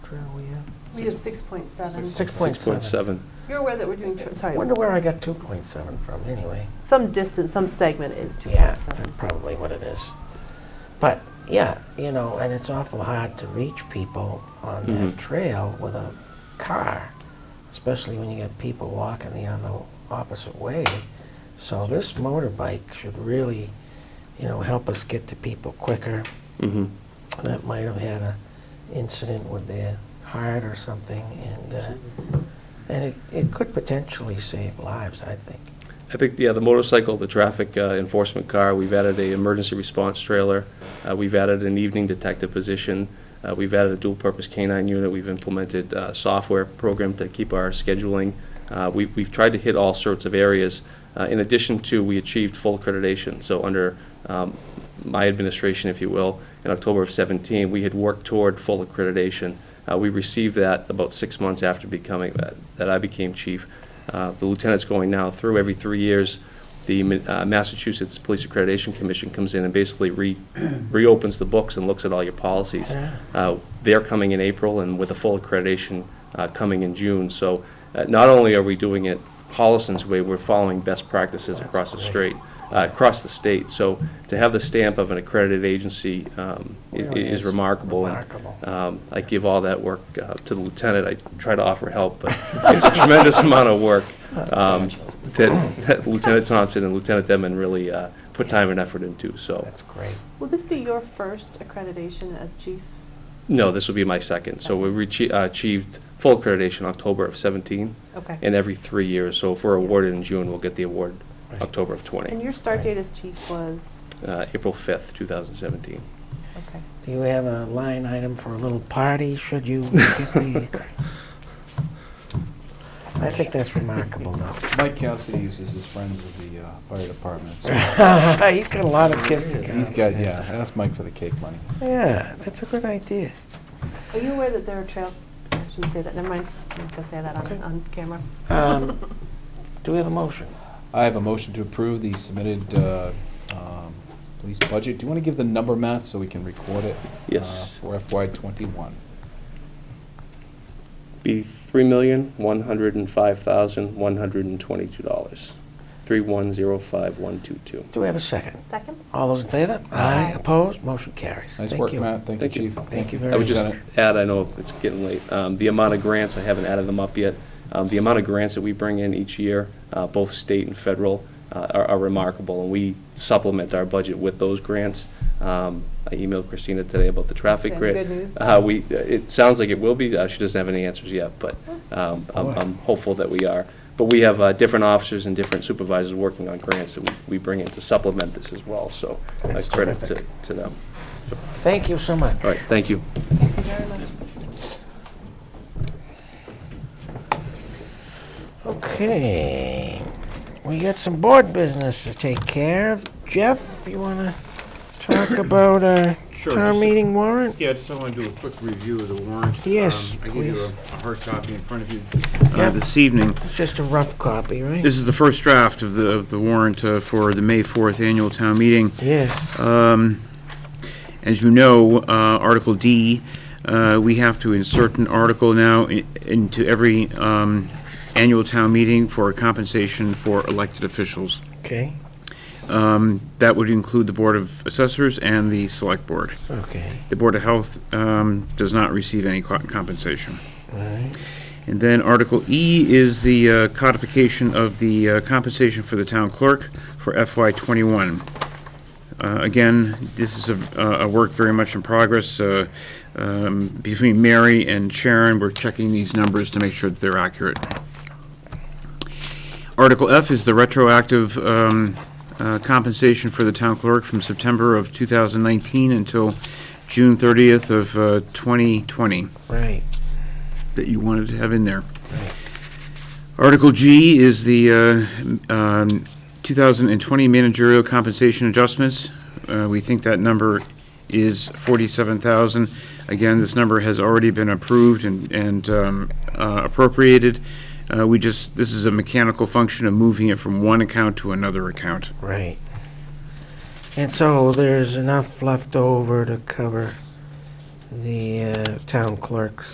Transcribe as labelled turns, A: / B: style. A: crown we have?
B: We have 6.7.
A: Six point seven.
C: 6.7.
B: You're aware that we're doing, tr- sorry,
A: Wonder where I got two point seven from, anyway.
B: some distance, some segment is
A: Yeah,
B: 2.7.
A: that's probably what it is. But, yeah, you know, and it's awful hard to reach people on that
C: Mhm.
A: trail with a car, especially when you get people walking the other opposite way. So this motorbike should really, you know, help us get to people quicker
C: Mhm.
A: that might have had a incident with their heart or something, and, uh, and it, it could potentially save lives, I think.
C: I think, yeah, the motorcycle, the traffic uh, enforcement car, we've added a emergency response trailer, uh, we've added an evening detective position, uh, we've added a dual-purpose canine unit, we've implemented uh, software program to keep our scheduling. Uh, we- We've tried to hit all sorts of areas. Uh, In addition to, we achieved full accreditation, so under um, my administration, if you will, in October of 17, we had worked toward full accreditation. Uh, We received that about six months after becoming, that- that I became chief. Uh, The lieutenant's going now through every three years. The Ma- uh, Massachusetts Police Accreditation Commission comes in and basically re- reopens the books and looks at all your policies.
A: Yeah.
C: Uh, They're coming in April and with a full accreditation uh, coming in June. So uh, not only are we doing it Holliston's way, we're following best practices
A: That's
C: across the
A: great.
C: straight, uh, across the state. So to have the stamp of an accredited agency um, i- i-
A: Really
C: is
A: is
C: remarkable. and,
A: remarkable.
C: um, I give all that work uh, to the lieutenant. I try to offer help, but it's a tremendous amount of work
A: Oh,
C: um, that that Lieutenant Thompson and Lieutenant Denman really uh, put time and effort into.
D: Oh.
C: So,
A: That's great.
B: Will this be your first accreditation as chief?
C: no, this will be my second. So we reach- uh, achieved full accreditation October of 17,
B: Okay.
C: and every three years. So if we're awarded in June, we'll get the award
A: Right.
C: October of 20.
B: And your start date as chief was,
C: uh, April 5th, 2017.
B: okay.
A: Do you have a line item for a little party, should you get the... I think that's remarkable, though.
D: Mike Cassidy uses his friends of the uh, fire department, so
A: He's got a lot of gift accounts.
D: he's got, yeah, ask Mike for the cake money.
A: Yeah, that's a good idea.
B: Are you aware that there are trail, I shouldn't say that, never mind, I'm not gonna say that
A: Okay.
B: on, on camera.
A: Um, Do we have a motion?
D: I have a motion to approve the submitted uh, um, police budget. Do you want to give the number, Matt, so we can record it?
C: Yes.
D: uh, For FY '21.
C: be three million, one hundred and five thousand, one hundred and twenty-two dollars. Three one zero five one two two.
A: Do we have a second?
B: Second?
A: All those in favor?
B: Aye.
A: Opposed? Motion carries.
D: Nice
A: Thank
D: work,
A: you.
D: Matt. Thank you,
C: Thank you.
D: Chief.
A: Thank you
C: I
A: very
C: would
A: much.
C: just add, I know it's getting late, um, the amount of grants, I haven't added them up yet. Um, the amount of grants that we bring in each year, uh, both state and federal, uh, are, are remarkable, and we supplement our budget with those grants. Um, I emailed Christina today about the traffic
B: Good
C: grid.
B: news.
C: Uh, we, it sounds like it will be, uh, she doesn't have any answers yet, but, um,
A: Oh,
C: I'm, I'm hopeful that we are. But we have, uh, different officers and different supervisors working on grants that we, we bring in to supplement this as well, so. uh,
A: That's
C: credit to-
A: terrific.
C: To them.
A: Thank you so much.
C: All right, thank you.
B: Thank you very much.
A: Okay, we got some board business to take care of. Jeff, you want to talk about our
E: Sure,
A: town
E: just-
A: meeting warrant?
E: Yeah, I just want to do a quick review of the warrant.
A: Yes,
E: Um, I give you a
A: please.
E: a hard copy in front of you
A: Yeah.
E: uh, this evening.
A: It's just a rough copy, right?
E: This is the first draft of the of the warrant uh, for the May 4th annual town meeting.
A: Yes.
E: Um, As you know, uh, Article D, uh, we have to insert an article now i- into every um, annual town meeting for compensation for elected officials.
A: Okay,
E: Um, That would include the Board of Assessors and the Select Board.
A: okay,
E: The Board of Health um, does not receive any co- compensation.
A: all right.
E: And then Article E is the uh, codification of the uh, compensation for the town clerk for FY '21. Uh, Again, this is a a work very much in progress. uh, um, Between Mary and Sharon, we're checking these numbers to make sure that they're accurate. Article F is the retroactive um, uh, compensation for the town clerk from September of 2019 until June 30th of uh, 2020
A: Right,
E: that you wanted to have in there. Article G is the uh, um, 2020 managerial compensation adjustments. Uh, We think that number is 47,000. Again, this number has already been approved and- and um, uh, appropriated. Uh, We just, this is a mechanical function of moving it from one account to another account.
A: right. And so there's enough left over to cover the uh, town clerk's